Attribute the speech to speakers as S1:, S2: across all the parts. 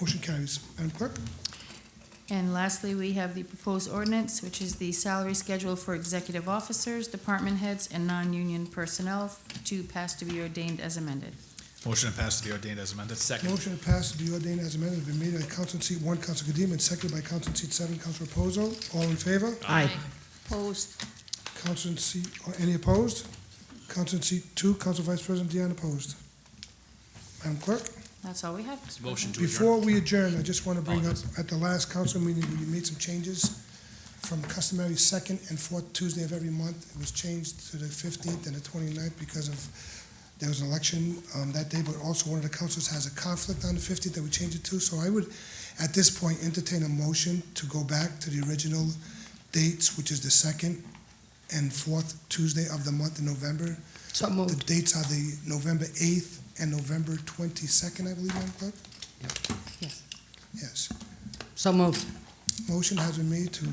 S1: Motion carries. Madam Clerk?
S2: And lastly, we have the proposed ordinance, which is the salary schedule for executive officers, department heads, and non-union personnel to pass to be ordained as amended.
S3: Motion to pass to be ordained as amended. Second.
S1: Motion to pass to be ordained as amended has been made by Council in seat one, Council Kadim, and seconded by Council in seat seven, Council Reposo. All in favor?
S4: Aye.
S5: Opposed?
S1: Council in seat, or any opposed? Council in seat two, Council Vice President Dion opposed. Madam Clerk?
S2: That's all we have. Mr. President.
S3: Motion to
S1: Before
S3: adjourn.
S1: we adjourn, I just want to bring up,
S3: Apologies.
S1: at the last council meeting, we made some changes from customary second and fourth Tuesday of every month. It was changed to the fifteenth and the 29th because of, there was an election um, that day, but also one of the councils has a conflict on the fifteenth that we changed it to. So I would, at this point, entertain a motion to go back to the original dates, which is the second and fourth Tuesday of the month in November.
S4: So
S1: The
S4: moved.
S1: dates are the November eighth and November twenty-second, I believe, Madam Clerk?
S4: Yes.
S1: Yes.
S4: So moved.
S1: Motion has been made to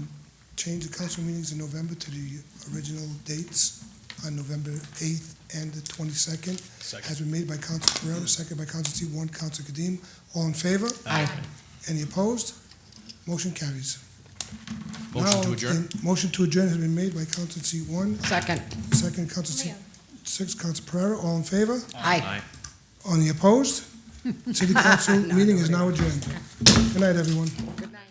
S1: change the council meetings in November to the original dates on November 8th and the 22nd. Has
S3: Second.
S1: been made by Council Pereira, second by Council seat one, Council Kadim. All in favor?
S4: Aye.
S1: Any opposed? Motion carries.
S3: Motion to
S1: Now,
S3: adjourn.
S1: in- Motion to adjourn has been made by Council seat one,
S4: Second.
S1: second Council seat six, Council Pereira. All in favor?
S4: Aye.
S1: Any opposed? City Council meeting is now adjourned. Good night, everyone.
S4: Good night.